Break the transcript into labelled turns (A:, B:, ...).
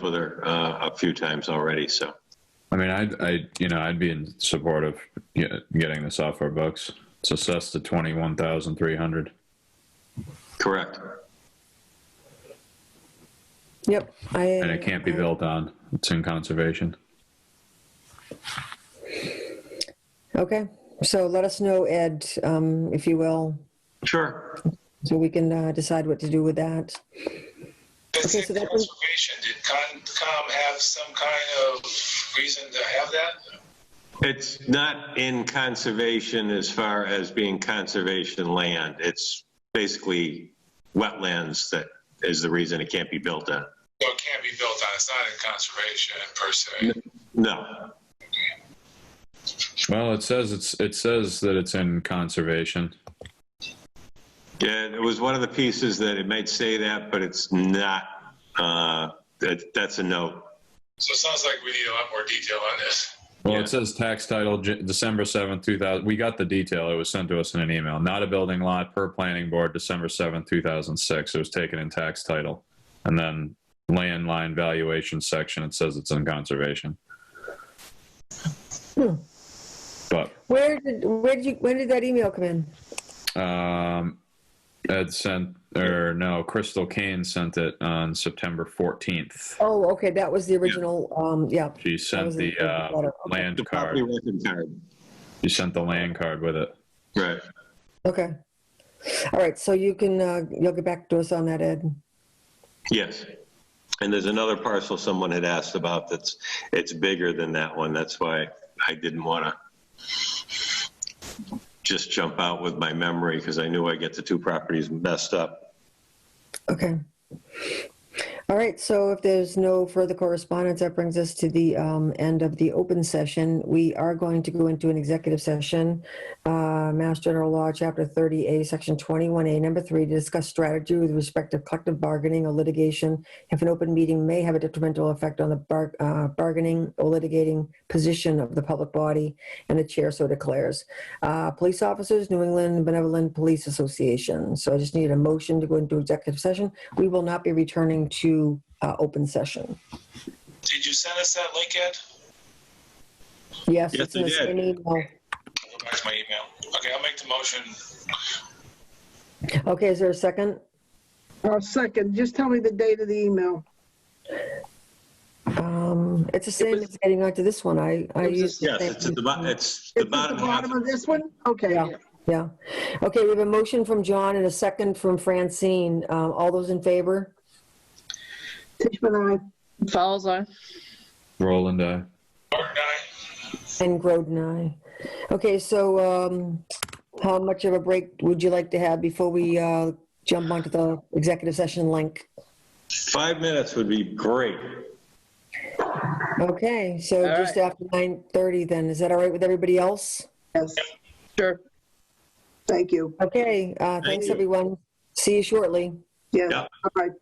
A: with her uh, a few times already, so.
B: I mean, I'd, I, you know, I'd be in support of get- getting this off our books. It's assessed to twenty-one thousand three hundred.
A: Correct.
C: Yep. I,
B: And it can't be built on. It's in conservation.
C: Okay. So let us know, Ed, um, if you will,
A: Sure.
C: so we can uh, decide what to do with that.
D: I think
C: so that was-
D: conservation, did Concom have some kind of reason to have that?
A: It's not in conservation as far as being conservation land. It's basically wetlands that is the reason it can't be built on.
D: Well, it can't be built on, it's not in conservation per se.
A: No.
B: Well, it says it's, it says that it's in conservation.
A: Yeah, it was one of the pieces that it might say that, but it's not, uh, that, that's a note.
D: So it sounds like we need a lot more detail on this.
B: Well,
A: Yeah.
B: it says tax title J- December seventh, two thousand. We got the detail. It was sent to us in an email. Not a building lot per planning board, December seventh, two thousand six. It was taken in tax title, and then land line valuation section. It says it's in conservation. But
C: Where did where did you when did that email come in?
B: Um, Ed sent, or no, Crystal Kane sent it on September 14th.
C: Oh, okay, that was the original. Um, yeah.
B: She
C: That
B: sent
C: was
B: the
C: the-
B: uh,
C: okay.
B: land
A: The property
B: card.
A: record card.
B: She sent the land card with it.
A: Right.
C: Okay. All right. So you can uh, you'll get back to us on that, Ed.
A: Yes. And there's another parcel someone had asked about that's, it's bigger than that one. That's why I didn't want to just jump out with my memory because I knew I get the two properties messed up.
C: Okay. All right, so if there's no further correspondence, that brings us to the um, end of the open session. We are going to go into an executive session, uh, Mass General Law, Chapter 30A, Section 21A, Number 3, to discuss strategy with respect to collective bargaining or litigation if an open meeting may have a detrimental effect on the bar- uh, bargaining or litigating position of the public body, and the chair so declares. Uh, Police officers, New England Benevolent Police Association. So I just need a motion to go into executive session. We will not be returning to uh, open session.
D: Did you send us that link, Ed?
C: Yes,
A: Yes,
C: it's in
A: I
C: the
A: did.
C: same email.
D: Go back to my email. Okay, I'll make the motion.
C: Okay, is there a second?
E: I'll Oh, second. Just tell me the date of the email.
C: Um, It's the same
E: was-
C: as getting onto this one. I, I
E: It was
C: used. the
A: Yes,
C: same-
A: it's at the, bo- it's the
E: It's at the
A: bottom half.
E: bottom of this one? Okay,
C: Yeah. Yeah. Okay, we have a motion from John and a second from Francine. Uh, All those in favor?
E: Tishman,
F: Fowles eye.
B: Roland, uh, I.
D: Martin, aye?
C: And Groden, aye. Okay, so um, how much of a break would you like to have before we uh, jump onto the executive session link?
A: Five minutes would be great.
C: Okay, so
F: All
C: just after 9:30 then, is that all right with everybody else?
E: I, yes,
F: Sure.
E: thank you.
C: Okay, uh, thanks,
A: you.
C: everyone. See you shortly.
E: Yes,
A: Yeah.
E: all right.